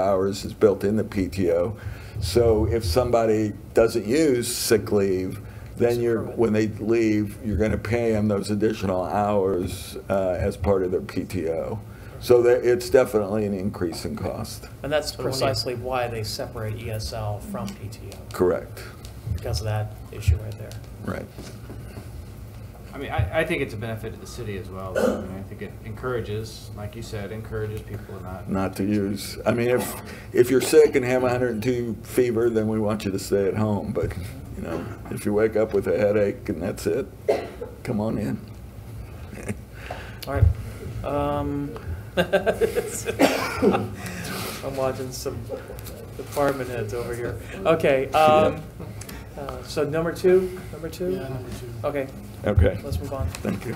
hours is built in the PTO. So if somebody doesn't use sick leave, then you're, when they leave, you're going to pay them those additional hours uh, as part of their PTO. So that, it's definitely an increase in cost. And that's precisely why they separate ESL from PTO, Correct. because of that issue right there. Right. I mean, I, I think it's a benefit to the city as well. I mean, I think it encourages, like you said, encourages people to not. Not to use, I mean, if, if you're sick and have 102 fever, then we want you to stay at home. But, you know, if you wake up with a headache and that's it, come on in. All right. Um, I'm watching some department heads over here. Okay, um, uh, so number two, number two? Okay, Okay, let's move on. thank you.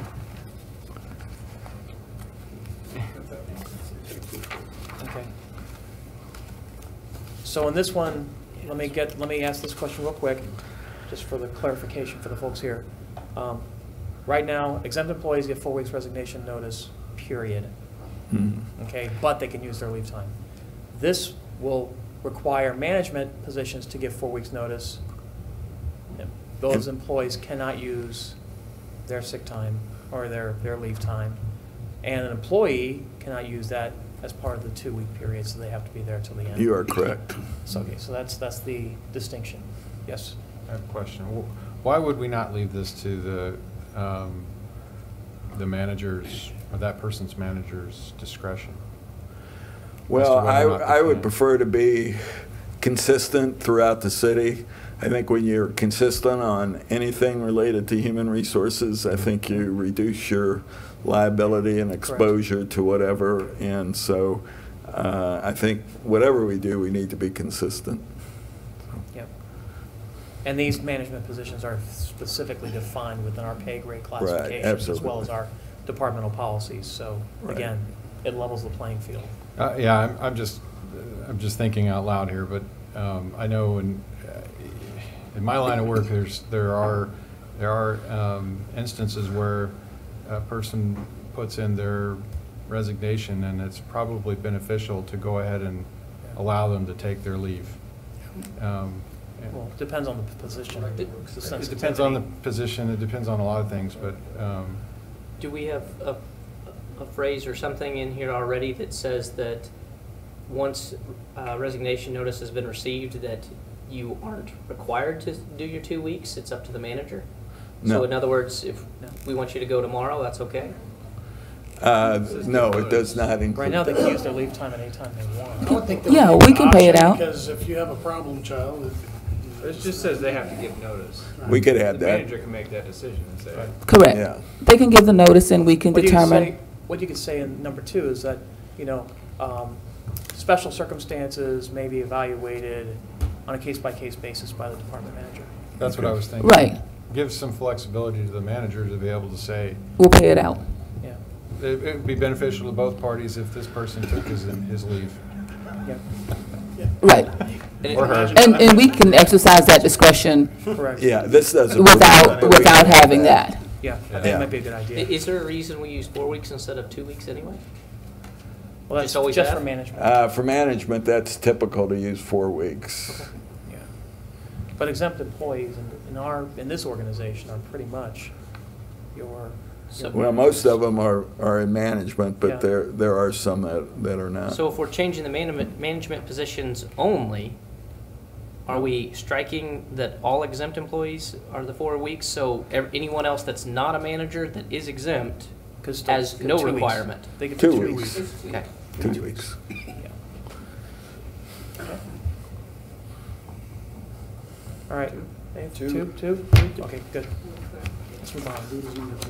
Okay. So on this one, let me get, let me ask this question real quick, just for the clarification for the folks here. Um, Right now, exempt employees get four weeks resignation notice, period, Mhm. okay, but they can use their leave time. This will require management positions to give four weeks' notice. Those employees cannot use their sick time or their, their leave time. And an employee cannot use that as part of the two-week period, so they have to be there till the end. You are correct. So, okay, so that's, that's the distinction. Yes? I have a question. Wh- Why would we not leave this to the, um, the manager's, or that person's manager's discretion? Well, whether or I, not they I would can. prefer to be consistent throughout the city. I think when you're consistent on anything related to human resources, I think you reduce your liability and exposure to whatever. And so uh, I think whatever we do, we need to be consistent. Yep. And these management positions are specifically defined within our pay grade classifications as well absolutely. as our departmental policies. So Right. again, it levels the playing field. Uh, Yeah, I'm, I'm just, I'm just thinking out loud here, but um, I know in, uh, in my line of work, there's, there are, there are um, instances where a person puts in their resignation, and it's probably beneficial to go ahead and allow them to take their leave. Um, and- Well, it depends on the position. the It depends on the sensitivity. position, it depends on a lot of things, but, um, Do we have a, a phrase or something in here already that says that once uh, resignation notice has been received, that you aren't required to do your two weeks? It's up to the manager? No. So in other words, if No. we want you to go tomorrow, that's okay? Uh, No, it does not include. Right now, they can that. use their leave time at any time they want. I would think that Yeah, would be we an can pay it option, out. Because if you have a problem child, it. It just says they have to give notice. We could have The manager that. can make that decision and say, Yeah. Correct. They can give the notice and we can What you could say- determine. What you could say in number two is that, you know, um, special circumstances may be evaluated on a case-by-case basis by the department manager. that's what I was thinking. Right. Give some flexibility to the manager to be able to say, We'll pay it out. Yeah, it it would be beneficial to both parties if this person took his, his leave. yeah, Right. Or her. And, and we can exercise that discretion correct. Yeah, this doesn't. without, but we can without have having that. Yeah, I think Yeah. that might be a good I- idea. Is there a reason we use four weeks instead of two weeks anyway? Well, that's just always just for have? management, Uh, For management, that's typical to use four weeks. yeah. But exempt employees in- in our, in this organization are pretty much your. So- Well, most of them are, are in management, Yeah. but there, there are some that, that are not. So if we're changing the management, management positions only, are we striking that all exempt employees are the four weeks? So ev- anyone else that's not a manager that is exempt Because still- has no two weeks. requirement? They could do Two weeks, Okay. two weeks. All right. Dave, Two. Two, two? Okay, good. Let's move on.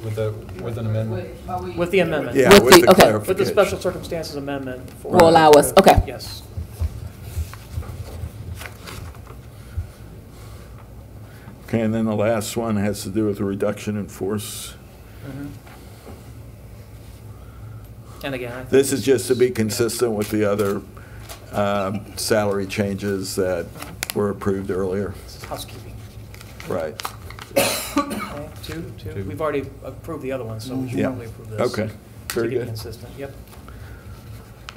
With the, with an amendment. With the amendment. Yeah, With with the- the okay. clarification. With the special circumstances amendment. for- Will allow us, okay. Yes. Okay, and then the last one has to do with the reduction in force. Mhm. And again, I think. This is just to be consistent with the other um, salary changes that were approved earlier. This is housekeeping. Right, Okay, Two, two. Two. We've already approved the other one, so we should Yeah. probably approve this. okay. To Very be good. consistent, yep.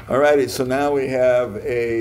All righty, so now we have a